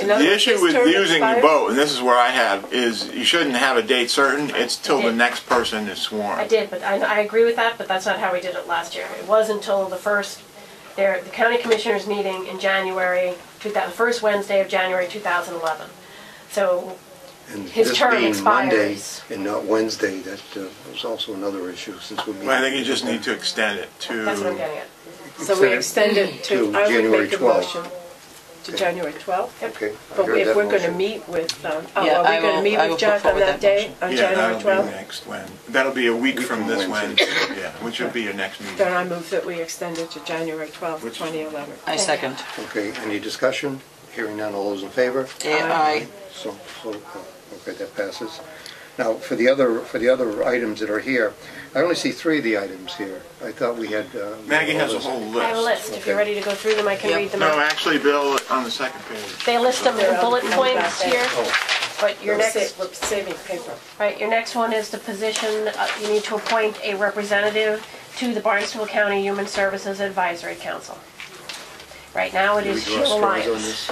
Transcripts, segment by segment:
In other The words, issue his with term using the expires- vote, and this is where I have, is you shouldn't have a date certain. It's till the did. next person is I sworn. did, but I, I agree with that, but that's not how we did it last year. It was until the first, there, the county commissioners meeting in January, two thou- first Wednesday of January 2011. So, And His this term being Monday expires. and not Wednesday, that uh, was also another issue since we meet. But I think you just need to extend it to. that's what I'm getting at. So we extend it to, To I would January make a 12th. motion to January 12th. Okay. I But heard if that we're going to motion. meet with, um, oh, Yeah, are I we going will- to meet I will with put Jack on forward that that day, motion. on Yeah, January that'll be 12th? next Wednesday. That'll be a week from from this Wednesday, Wednesday. yeah, which would be your next meeting. Then I move that we extend it to January 12th, Which- 2011. I second. Okay, any discussion? Hearing none, all those in favor? Aye. So, so, okay, that passes. Now, for the other, for the other items that are here, I only see three of the items here. I thought we had. uh, Maggie has a whole I have a list. list. If you're Okay. ready to go through them, I can Yep. read them No, out. actually, Bill, on the second page. They list them in bullet They're all on the points back here, Oh. but your We're sa- next, we're saving paper. right, your next one is the position, uh, you need to appoint a representative to the Barnstable County Human Services Advisory Council. Right now, it Do we is draw Sheila straws on Lyons. this?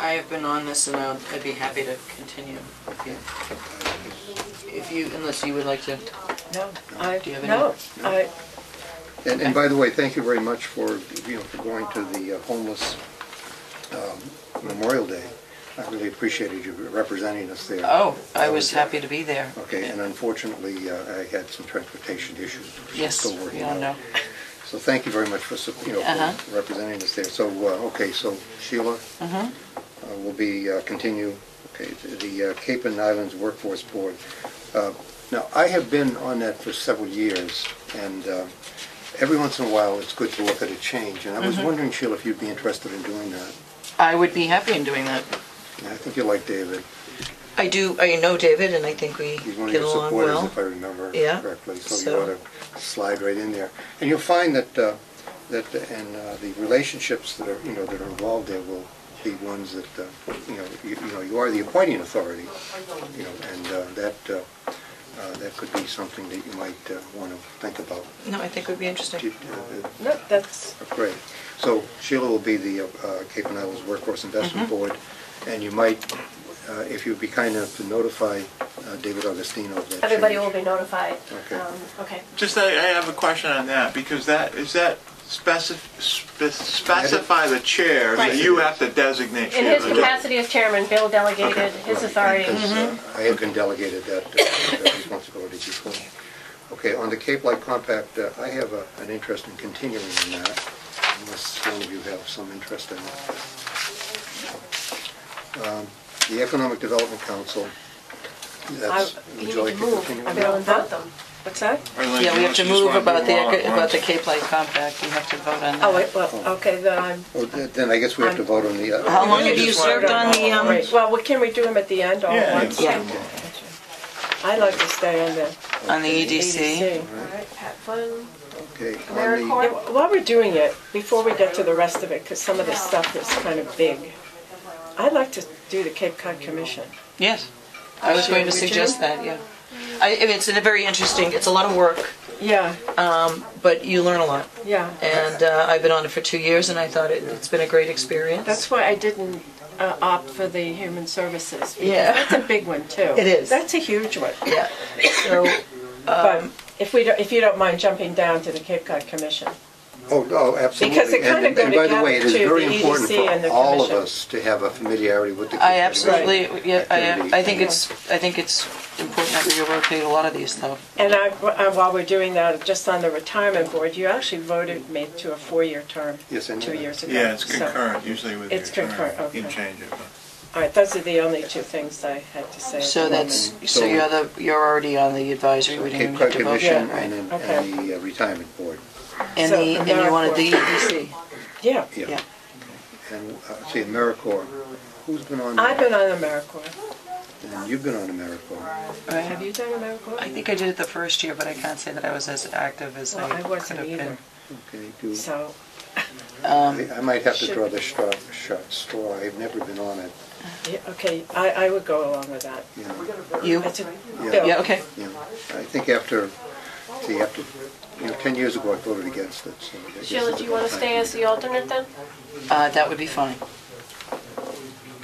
I have been on this and I'd I'd be happy to continue. if you- If you, unless you would like to, No, I, Do you have any? no, I, And, and by the way, thank you very much for, you know, for going to the uh, homeless um, Memorial Day. I really appreciated you representing us there. oh, I was happy to be there. Okay, and unfortunately, uh, I had some transportation issues. which we're Yes, still we working all out. know. So thank you very much for, sup- you know, Uh-huh. for representing us there. So, uh, okay, so Sheila Mm-hmm. uh, will be, uh, continue, okay, to the uh, Cape and Islands Workforce Board. Uh, Now, I have been on that for several years, and uh, every once in a while, it's good to look at a change. And I Mm-hmm. was wondering, Sheila, if you'd be interested in doing that. I would be happy in doing that. And I think you like David. I do, I know David and I think we He's one of get your along supporters, well. if I remember Yeah, correctly, so you so- ought to slide right in there. And you'll find that, uh, that, and uh, the relationships that are, you know, that are involved there will be ones that, uh, you know, you you know, you are the appointing authority, you know, and uh, that, uh, uh, that could be something that you might uh, want to think about. No, I think it would be interesting. Did, uh, uh, no, that's, Great. So Sheila will be the uh, uh, Cape and Islands Workforce Investment Mm-hmm. Board, and you might, uh, if you'd be kind enough to notify uh, David Augustino of that Everybody change. will be notified. Okay. Um, Okay. Just, I, I have a question on that, because that, is that specif- spe- specify the chair that Right. you have to designate? In Sheila? his capacity as chairman, Bill delegated Okay. his authority. Because, uh, I had been delegated that uh, that responsibility before. Okay, on the Cape Light Compact, uh, I have a- an interest in continuing on that, unless one of you have some interest in it. Um, The Economic Development Council, that's, I- You would need you to like to continue move, Bill, on that? and vote them. what's that? Or unless Yeah, you we want- have to you just move wanna about the, all at eco- about once. the Cape Light Compact. We have to vote on Oh, that. wait, well, okay, then I'm, Oh, th- Then I guess we have to vote on the... uh, How long have just wanted you served to- on the, um, Right, well, what can we do them at the end all at Yeah, once? yeah. Yeah. I'd like to stay on the um, on the E EDC? EDC. All right, Pat Flynn. Okay, AmeriCorps. on the, Yeah, While we're doing it, before we get to the rest of it, because some of this stuff is kind of big, I'd like to do the Cape Cod Commission. Yes. I was going to Would you? suggest that, yeah. I, I mean, it's a very interesting, it's a lot of work, Yeah, but you learn a lot. yeah. And uh, I've been on it for two years and I thought it, it's been a great experience. That's why I didn't uh, opt for the human services. because Yeah. That's a big one, too. It is. That's a huge one. Yeah. So, But if we, don't- if you don't mind jumping down to the Cape Cod Commission. oh, oh, absolutely. Because it And- kinda go And by the way, it together is to very the important EDC and for the all of commission. us to have a familiarity with the... Cape Cod I Commission. absolutely, yeah, I, I think Activities. it's, I think it's important that we overpay a lot of these though. And I, uh, while we're doing that, just on the retirement board, you actually voted me to a four-year term Yes, I know two that. years ago. Yeah, it's So- concurrent usually with your It's term. concurrent, You can okay. change it. but- All right, those are the only two things I had to say. at So the that's, moment. so you're the, you're already on the advisory, we didn't Cape even Cod have to vote yet, Commission right? and then- Okay. and the uh, Retirement Board. And So the, and you wanted the EDC, Yeah, yeah. And, uh, see, AmeriCorps, who's been on? I've that? been on AmeriCorps. And you've been on AmeriCorps. Have Right. you done AmeriCorps? I think I did it the first year, but I can't say that I was as active as Well, I I could wasn't have been. either, Okay, do, so, I I might have to should- draw the straw, shot straw, I've never been on it, yeah, okay, I, I would go along with that. you know. Um, You? That's a Yeah. Yeah, bill. okay. you know. I think after, see, after, you know, 10 years ago, I voted against it, so. I guess Sheila, it's do you want to about stay time. as the alternate then? Uh, that would be fine.